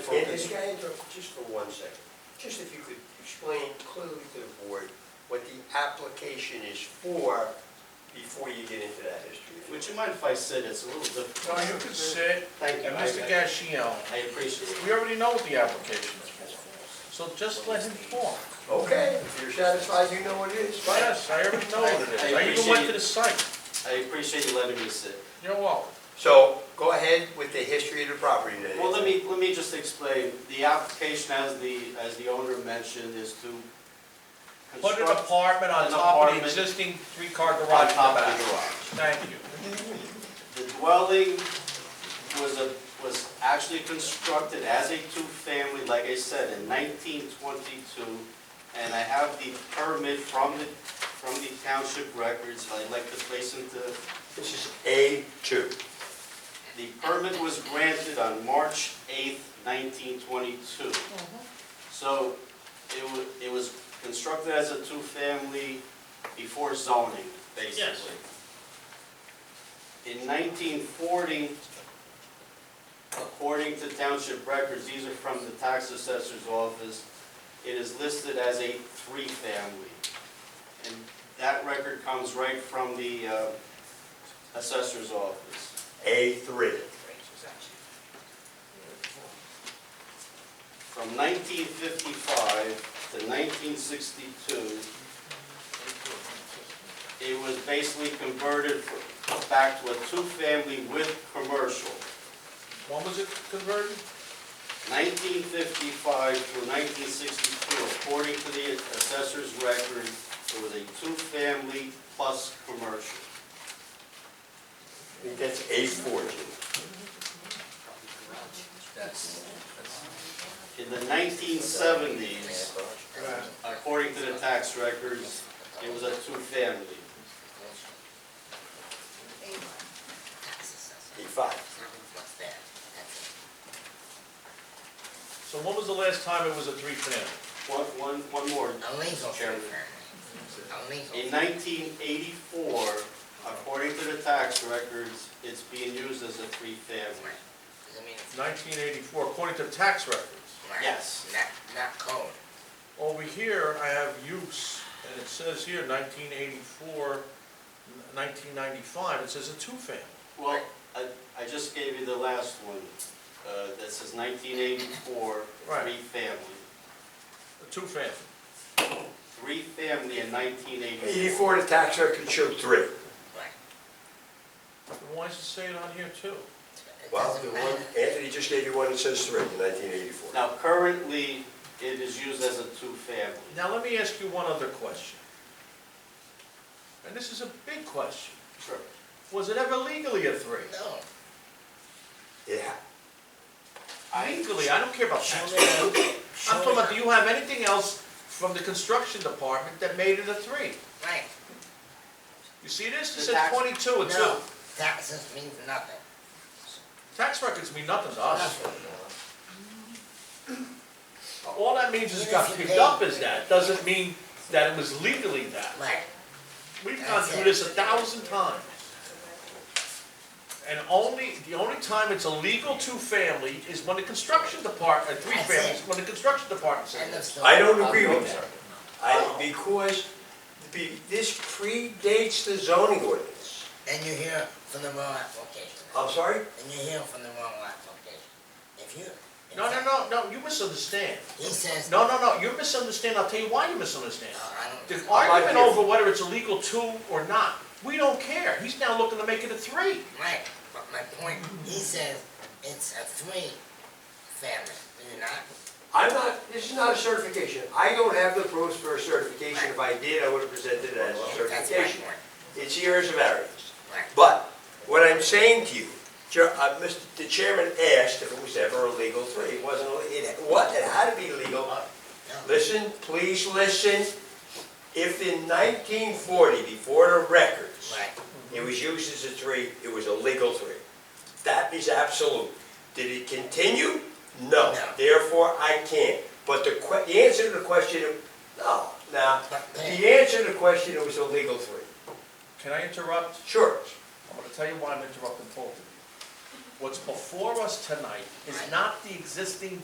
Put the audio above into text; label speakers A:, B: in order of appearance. A: Yes, can I interrupt just for one second? Just if you could explain clearly to the board what the application is for before you get into that history.
B: Would you mind if I sit? It's a little difficult.
C: No, you can sit,
B: Thank you.
C: and Mr. Gassion,
B: I appreciate it.
C: we already know what the application is for, so just let him talk.
A: Okay, if you're satisfied, you know what it is, fine.
C: Yes, I already know what it is, I even went to the site,
B: I appreciate you letting me sit.
C: you're welcome.
A: So go ahead with the history of the property then.
B: Well, let me, let me just explain. The application, as the, as the owner mentioned, is to
C: Put an
B: construct
C: apartment on
B: An
C: top of the
B: apartment.
C: existing three-car
B: on
C: garage in
B: top
C: the
B: of the garage.
C: back. Thank you.
B: The dwelling was a, was actually constructed as a two-family, like I said, in nineteen twenty-two. And I have the permit from the, from the township records, I'd like to place into,
A: This is A two.
B: the permit was granted on March eighth, nineteen twenty-two. So it wa, it was constructed as a two-family before zoning, basically. In nineteen forty, according to township records, these are from the tax assessor's office, it is listed as a three-family. And that record comes right from the uh, assessor's office.
A: A three.
B: From nineteen fifty-five to nineteen sixty-two, it was basically converted fr- back to a two-family with commercial.
C: When was it converted?
B: 1955 through 1962, according to the assessor's record, it was a two-family plus commercial.
A: I think that's A four, Jim.
B: In the 1970s, according to the tax records, it was a two-family.
A: A five.
C: So when was the last time it was a three-family?
B: One, one, one more, Mr. Chairman. In 1984, according to the tax records, it's being used as a three-family.
C: Nineteen eighty-four, according to tax records.
B: Yes.
D: Not, not code.
C: Over here, I have use, and it says here 1984, 1995. it says a two-family.
B: Well, I, I just gave you the last one, uh, that says nineteen eighty-four,
C: Right.
B: three-family.
C: A two-family.
B: Three-family in nineteen eighty-four.
A: Eighty-four, the tax record showed three.
C: Then Why does it say it on here too?
D: It
A: Well, the
D: doesn't
A: one,
D: matter.
A: Anthony just gave you one that says three in nineteen eighty-four.
B: Now, currently, it is used as a two-family.
C: Now, let me ask you one other question. And this is a big question.
B: Sure.
C: Was it ever legally a three?
D: No.
A: Yeah,
C: Legally, I don't care about
D: Show
C: tax.
D: me,
C: I'm
D: the- show
C: talking about, do
D: me-
C: you have anything else from the construction department that made it a three?
D: Right,
C: You see this? It
B: The
C: says
B: tax-
C: twenty-two and two.
D: no, taxes means nothing.
C: Tax records mean nothing to us.
D: Nothing.
C: All that means is it got picked up as that, doesn't mean that it was legally that.
D: Right,
C: We've gone through this a thousand times. And only, the only time it's illegal two-family is when the construction department, three
D: That's it.
C: families, when the construction department
D: end of
C: says
D: story.
A: I don't agree with that. I,
C: Oh.
A: because be- this predates the zoning ordinance.
D: And you hear from the wrong application.
A: I'm sorry?
D: And you hear from the wrong application. If you.
C: it. No, no, no, no, you misunderstand.
D: He says.
C: No, no, no, you misunderstand, I'll tell you why you misunderstand.
D: No, I don't.
C: The
D: Right,
C: argument
A: here.
C: over whether it's illegal two or not, we don't care. He's now looking to make it a three.
D: but my point, he says it's a three family, do you not?
A: I'm not, this is not a certification. I don't have the proofs for a certification. If I did, I would have presented it as a
D: That's my
A: certification.
D: point,
A: It's here as a variance.
D: right.
A: But what I'm saying to you, Chair- uh, Mr. the chairman asked if it was ever a legal three. It wasn't, a- it, what, it had to be legal.
D: No,
A: Listen, please listen. If in 1940, before the records,
D: Right,
A: It was used as a three, it was a legal three. That is absolute. Did it continue? No.
D: No.
A: Therefore, I can't. But the que, the answer to the question, no, now,
D: but,
A: the
D: but-
A: answer to the question, it was a legal three.
C: Can I interrupt?
A: Sure.
C: I'm gonna tell you why I'm interrupting both of you. What's before us tonight is not the existing